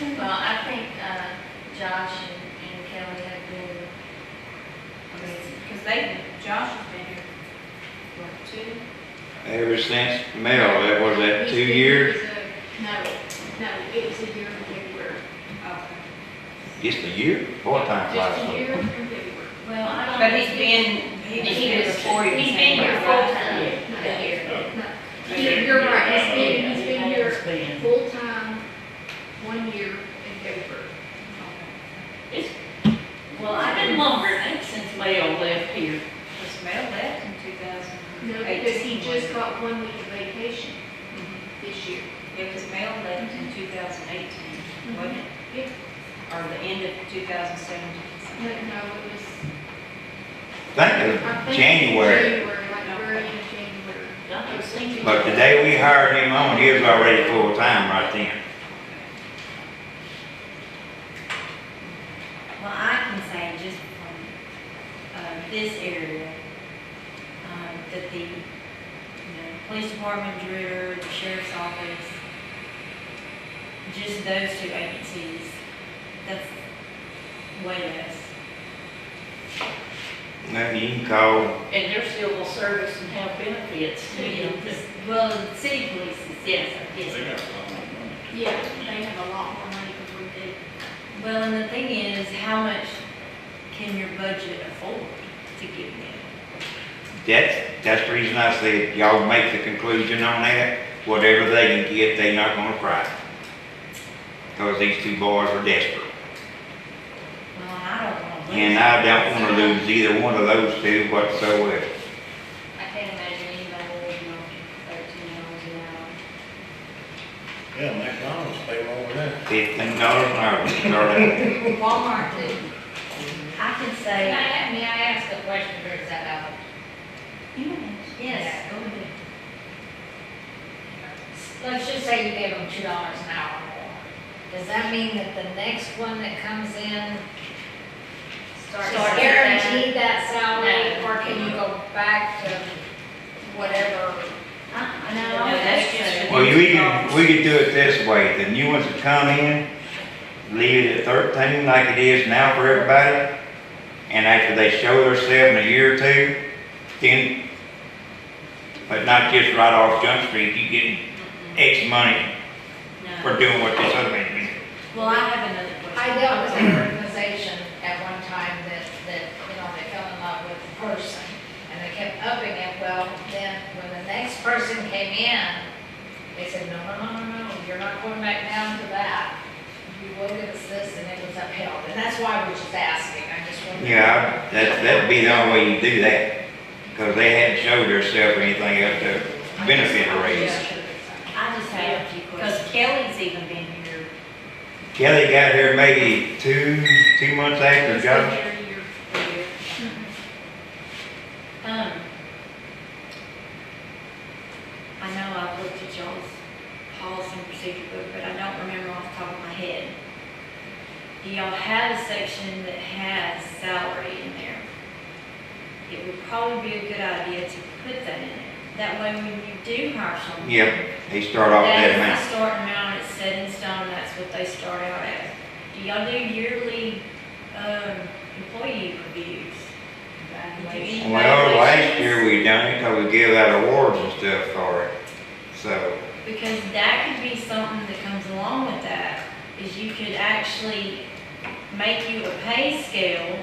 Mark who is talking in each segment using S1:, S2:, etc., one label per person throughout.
S1: uh, Josh and and Kelly have been amazing.
S2: Because they, Josh has been here, what, two?
S3: Ever since Mel, that was that two years,
S1: No, no, it was a year from February.
S2: Okay.
S3: just a year, boy, time flies.
S1: Just a year from February. Well, I don't.
S2: But he's been, he was here before you.
S1: He's
S2: came
S1: been here
S2: back, right?
S1: full time.
S2: Yeah.
S1: He- You're right, he's been, he's been here full time, one year in February.
S4: Well, I've been lumbering since Leo left here.
S2: Was Mel left in two thousand
S1: No,
S2: eighteen?
S1: because he just got one week of vacation this year.
S2: It was Mel left in two thousand eighteen, wasn't it?
S1: Yeah.
S2: Or the end of two thousand seventeen.
S1: No, no, it was.
S3: I think it
S1: I
S3: was
S1: think
S3: January,
S1: January, like very end of January.
S4: I was thinking.
S3: but the day we hired him on, he was already full-time right then.
S5: Well, I can say just from, uh, this area, um, that the, you know, police department, Dreer, the sheriff's office, just those two agencies, that's way less.
S3: Now, you can call,
S4: And they're civil service and have benefits too. They
S5: Well, the city police is, yes, yes.
S6: got a lot more money.
S1: Yeah, they have a lot more money than we do.
S5: Well, and the thing is, how much can your budget afford to give them?
S3: that's, that's the reason I said, y'all make the conclusion on that, whatever they can get, they not gonna cry. Cause these two boys are desperate,
S5: Well, I don't want to. lose
S3: and I don't
S5: that.
S3: wanna lose either one of those two whatsoever.
S5: I can't imagine anybody living on thirteen dollars an hour.
S6: Yeah, McDonald's pay more than that.
S3: Fifteen dollars an hour, we start out.
S5: Walmart too. I can
S7: May
S5: say,
S7: I, may I ask a question, or is that out?
S5: yes, go ahead.
S7: Let's just say you gave them two dollars an hour more. Does that mean that the next one that comes in
S5: Start-
S7: is guaranteed that salary?
S5: No.
S7: Or can you go back to whatever?
S5: I,
S2: No, that's just-
S3: Well, you- we could, we could do it this way, the new ones that come in, leave it at thirteen like it is now for everybody, and after they show themselves in a year or two, then, but not just right off Jump Street, you getting X money
S5: No.
S3: for doing what this other man did.
S5: Well, I have another question.
S7: I dealt with an organization at one time that, that, you know, they fell in love with the person, and they kept upping it, well, then, when the next person came in, they said, no, no, no, no, no, you're not going back down to that, you will give us this, and it was upheld, and that's why I was just asking, I just wanted.
S3: Yeah, that, that'd be the only way you do that, because they hadn't showed themselves or anything up to benefit a raise.
S5: I just have a few
S2: Because
S5: questions.
S2: Kelly's even been here.
S3: Kelly got here maybe two, two months after
S2: He's been
S3: Josh.
S2: here a year, a year.
S5: Um, I know I looked at y'all's policy and procedure book, but I don't remember off the top of my head. Do y'all have a section that has salary in there? It would probably be a good idea to put that in there. That way, when you do hire someone.
S3: Yep, they start off that amount.
S5: That's the starting amount, it's set in stone, that's what they start out at. Do y'all do yearly, um, employee reviews? Do any
S3: Well, last
S5: evaluations?
S3: year we done it, cause we give out awards and stuff for it, so,
S5: Because that could be something that comes along with that, is you could actually make you a pay scale.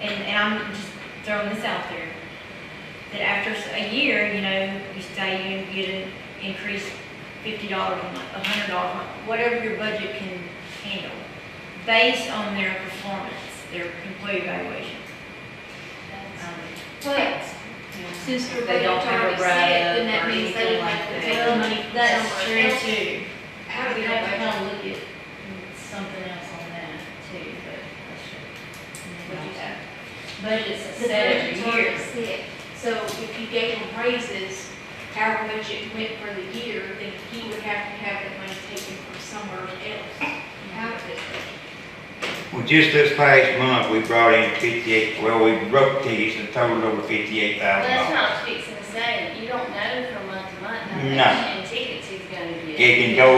S5: And, and I'm just throwing this out there, that after s- a year, you know, you say you get an increase fifty dollars a month, a hundred dollars a month, whatever your budget can handle, based on their performance, their employee evaluation. Um,
S1: But since the
S2: They
S1: rate
S2: don't have a
S1: already
S2: write-up
S1: set, then
S2: or
S1: that means they
S2: anything
S1: would have to
S2: like
S1: take the money from
S5: That's
S1: somewhere
S5: true
S1: else.
S5: too.
S1: How do
S5: We
S1: we
S5: have to
S1: know?
S5: kind of look at something else on that too, but that's just.
S1: What'd you say?
S5: Budget's
S1: The
S5: set every
S1: budget's already
S5: year.
S1: set, so if you gave him raises, however much it went for the year, then he would have to have that money taken from somewhere else. How did
S3: well, just this past month, we brought in fifty-eight, well, we broke tickets and totaled over fifty-eight
S4: Well,
S3: thousand
S4: that's
S3: dollars.
S4: not what I was fixing to say. You don't know from month to month how
S3: No.
S4: much in tickets he's gonna get.
S3: It can go